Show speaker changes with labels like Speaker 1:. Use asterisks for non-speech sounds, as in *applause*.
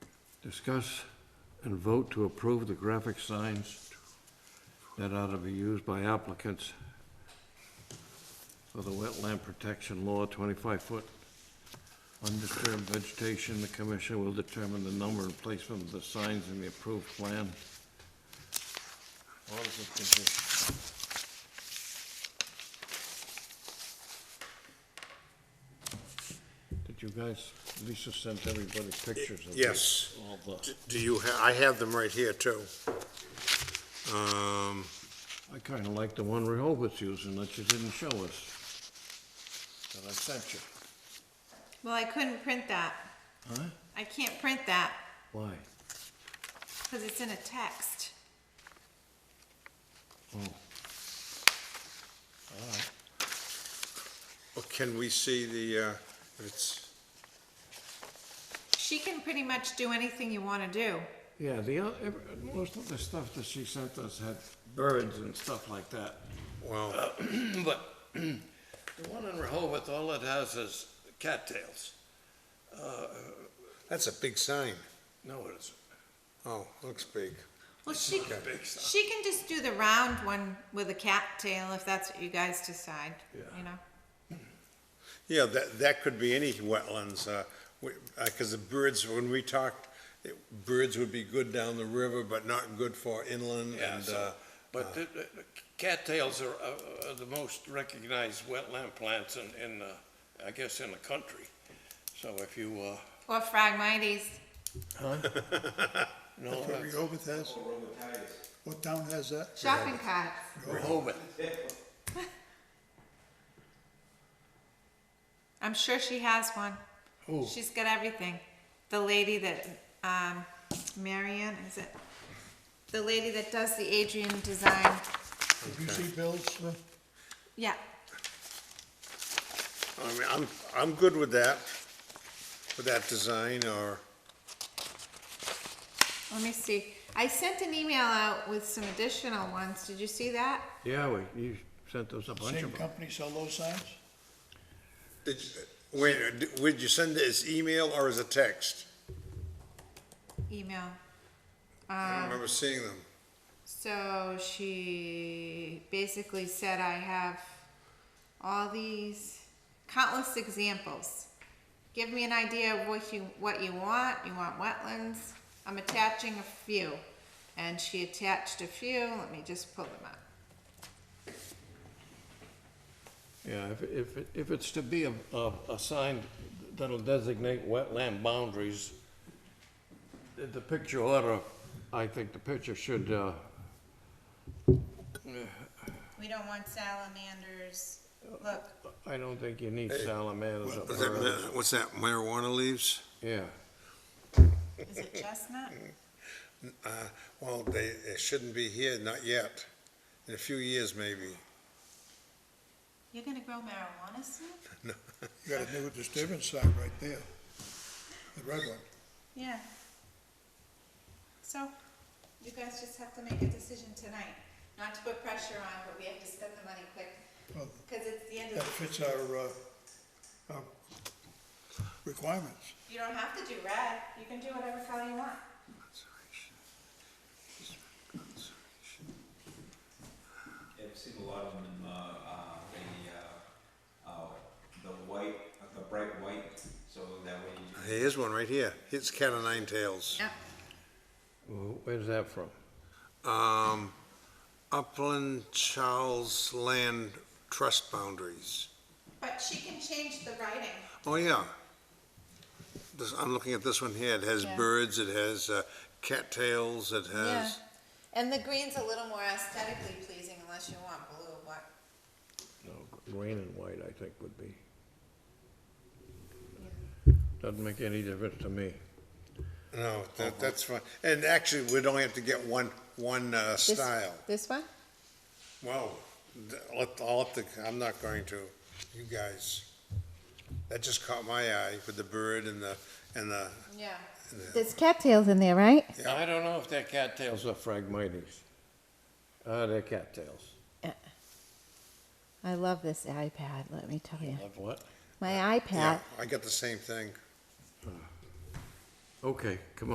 Speaker 1: Discuss and vote to approve the graphic signs that ought to be used by applicants for the wetland protection law, twenty-five foot undisturbed vegetation. The commission will determine the number and placement of the signs in the approved plan. All of it can be- Did you guys, Lisa sent everybody pictures of
Speaker 2: Yes.
Speaker 1: this, all the,
Speaker 2: D- Do you, ha- I have them right here, too. Um,
Speaker 1: I kinda like the one Rehoboth's using that you didn't show us. That I sent you.
Speaker 3: Well, I couldn't print that.
Speaker 1: Huh?
Speaker 3: I can't print that
Speaker 1: Why?
Speaker 3: because it's in a text.
Speaker 2: well, oh, Can we see the, uh, if it's,
Speaker 3: She can pretty much do anything you want to do.
Speaker 1: Yeah, the, oth- ev- most of the stuff that she sent us had birds and stuff like that. *clears throat*
Speaker 2: well,
Speaker 1: But *clears throat* the one in Rehoboth, all it has is cattails.
Speaker 2: that's a big sign.
Speaker 1: No, it isn't.
Speaker 2: Oh, looks big.
Speaker 3: Well, she,
Speaker 2: Okay.
Speaker 3: she can just do the round one with a cat tail if that's what you guys decide, you know?
Speaker 2: Yeah, that, that could be any wetlands, uh, we, uh 'cause cause the birds, when we talked, it- birds would be good down the river, but not good for inland
Speaker 4: Yeah,
Speaker 2: and,
Speaker 4: so-
Speaker 2: uh,
Speaker 4: But the, the the cattails are, uh, are the most recognized wetland plants in, in, uh, I guess, in the country. So if you, uh,
Speaker 3: Or Phragmites.
Speaker 2: uh,
Speaker 4: no,
Speaker 5: That's what Rehoboth has? What town has that?
Speaker 3: shopping carts.
Speaker 4: Rehoboth,
Speaker 3: I'm sure she has one. She's got everything. The lady that, um, Marianne, is it? The lady that does the Adrian design.
Speaker 5: Did you see Bill's? uh,
Speaker 3: Yeah,
Speaker 2: *laughs* I mean, I'm, I'm good with that, with that design or,
Speaker 3: Let me see. I sent an email out with some additional ones. Did you see that?
Speaker 1: Yeah, we, you sent us a bunch
Speaker 5: Same
Speaker 1: of them.
Speaker 5: company sell those signs?
Speaker 2: did, you- wait, uh, d- would you send it as email or as a text?
Speaker 3: Email.
Speaker 2: I don't remember seeing them.
Speaker 3: So she basically said, I have all these countless examples. Give me an idea of what you, what you want. You want wetlands? I'm attaching a few. And she attached a few. Let me just pull them up.
Speaker 1: Yeah, if, if, it- if it's to be a, a, a sign that'll designate wetland boundaries, the- the picture ought to, I think the picture should, uh,
Speaker 3: We don't want salamanders. Look,
Speaker 1: I don't think you need salamanders up
Speaker 2: What's that,
Speaker 1: there.
Speaker 2: ma- what's that, marijuana leaves?
Speaker 1: Yeah,
Speaker 3: is it chestnut?
Speaker 2: Uh, well, they, it shouldn't be here, not yet. In a few years, maybe.
Speaker 3: You're gonna grow marijuana soon?
Speaker 5: You got a new disturbance sign right there. The red one.
Speaker 3: Yeah. So, you guys just have to make a decision tonight, not to put pressure on, but we have to spend the money quick,
Speaker 5: Well,
Speaker 3: because it's the end
Speaker 5: That
Speaker 3: of,
Speaker 5: fits our, uh, our requirements.
Speaker 3: you don't have to do red, you can do whatever color you want.
Speaker 6: Yeah, I've seen a lot of them in the, uh, the, uh, uh, the white, uh, the bright white, so that way you
Speaker 2: Here's one right here. It's cat o' nine tails.
Speaker 3: Yeah.
Speaker 1: Wh- where's that from?
Speaker 2: Um, Upland Charles Land Trust Boundaries.
Speaker 3: But she can change the writing.
Speaker 2: Oh, yeah. This, I'm looking at this one here. It has
Speaker 3: Yeah.
Speaker 2: birds, it has, uh, cattails, it has,
Speaker 3: And the green's a little more aesthetically pleasing unless you want blue, but
Speaker 1: No, green and white, I think, would be. Doesn't make any difference to me.
Speaker 2: no, that, that's fine. And actually, we'd only have to get one, one, uh, style.
Speaker 3: This one?
Speaker 2: Well, th- let, I'll have to, I'm not going to, you guys. That just caught my eye with the bird and the, and the,
Speaker 3: Yeah.
Speaker 2: and the-
Speaker 3: There's cattails in there, right?
Speaker 1: I don't know if they're cattails or phragmites. Uh, they're cattails.
Speaker 3: I love this iPad, let me tell you.
Speaker 1: Of what?
Speaker 3: My
Speaker 2: yeah, I got the same thing.
Speaker 1: Okay, come on.